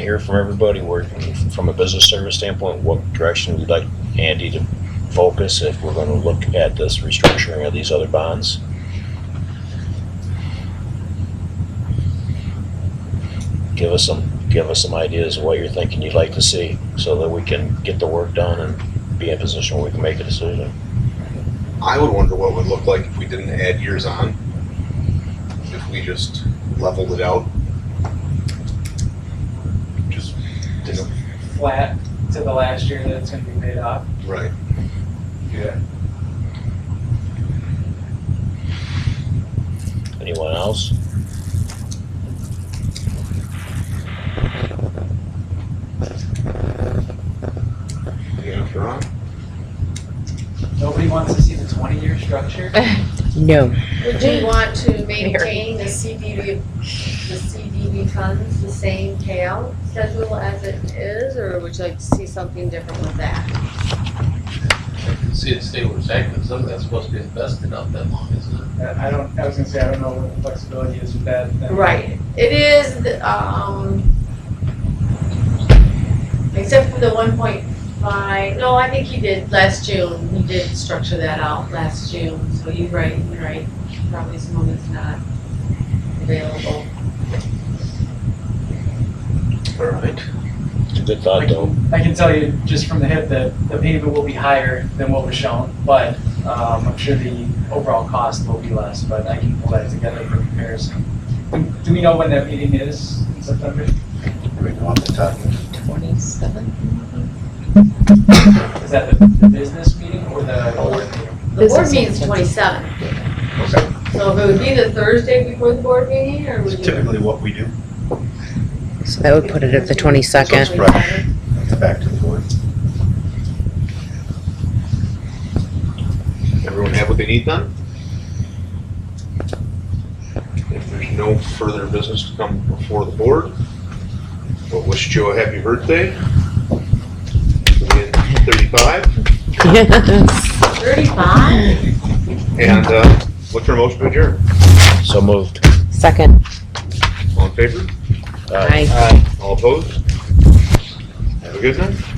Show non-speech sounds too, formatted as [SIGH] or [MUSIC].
hear from everybody, where, from a business service standpoint, what direction we'd like Andy to focus if we're gonna look at this restructuring of these other bonds. Give us some, give us some ideas of what you're thinking you'd like to see, so that we can get the work done and be in a position where we can make a decision. I would wonder what it would look like if we didn't add years on. If we just leveled it out. Just, you know, flat to the last year that it's gonna be paid off. right. Yeah. Anyone else? Yeah, if you're on. Nobody wants to see the twenty-year structure. No. Would you want to maintain the CDB, the CDB funds, the same payout schedule as it is, or would you like to see something different with that? I can see it stay where it's at, because some of that's supposed to be invested out that long, isn't it? I I don't, I was gonna say, I don't know what the flexibility is with that. then. Right, it is, the, um, except for the one point five, no, I think he did last June, he did structure that out last June, so you're right, you're right. Probably some of it's not available. All right. It's a good thought, though. I can tell you just from the hip that the payment will be higher than what was shown, but, um, I'm sure the overall cost will be less, but I can pull that together for comparison. Do- Do we know when that meeting is in September? Twenty-seven? Is that the, the business meeting or the board meeting? The board Business meeting's meeting. twenty-seven. So if it would be the Thursday before the board meeting, or would you? Typically what we do, So that would put it at the twenty-second. right. it's back to the board. Everyone have what they need done? If there's no further business to come before the board, we'll wish Joe a happy birthday. In Thirty-five, Thirty-five? and, uh, look for a motion to adjourn. So moved. [LAUGHS] Second. All in favor? Aye. Aye. All opposed? Have a good night.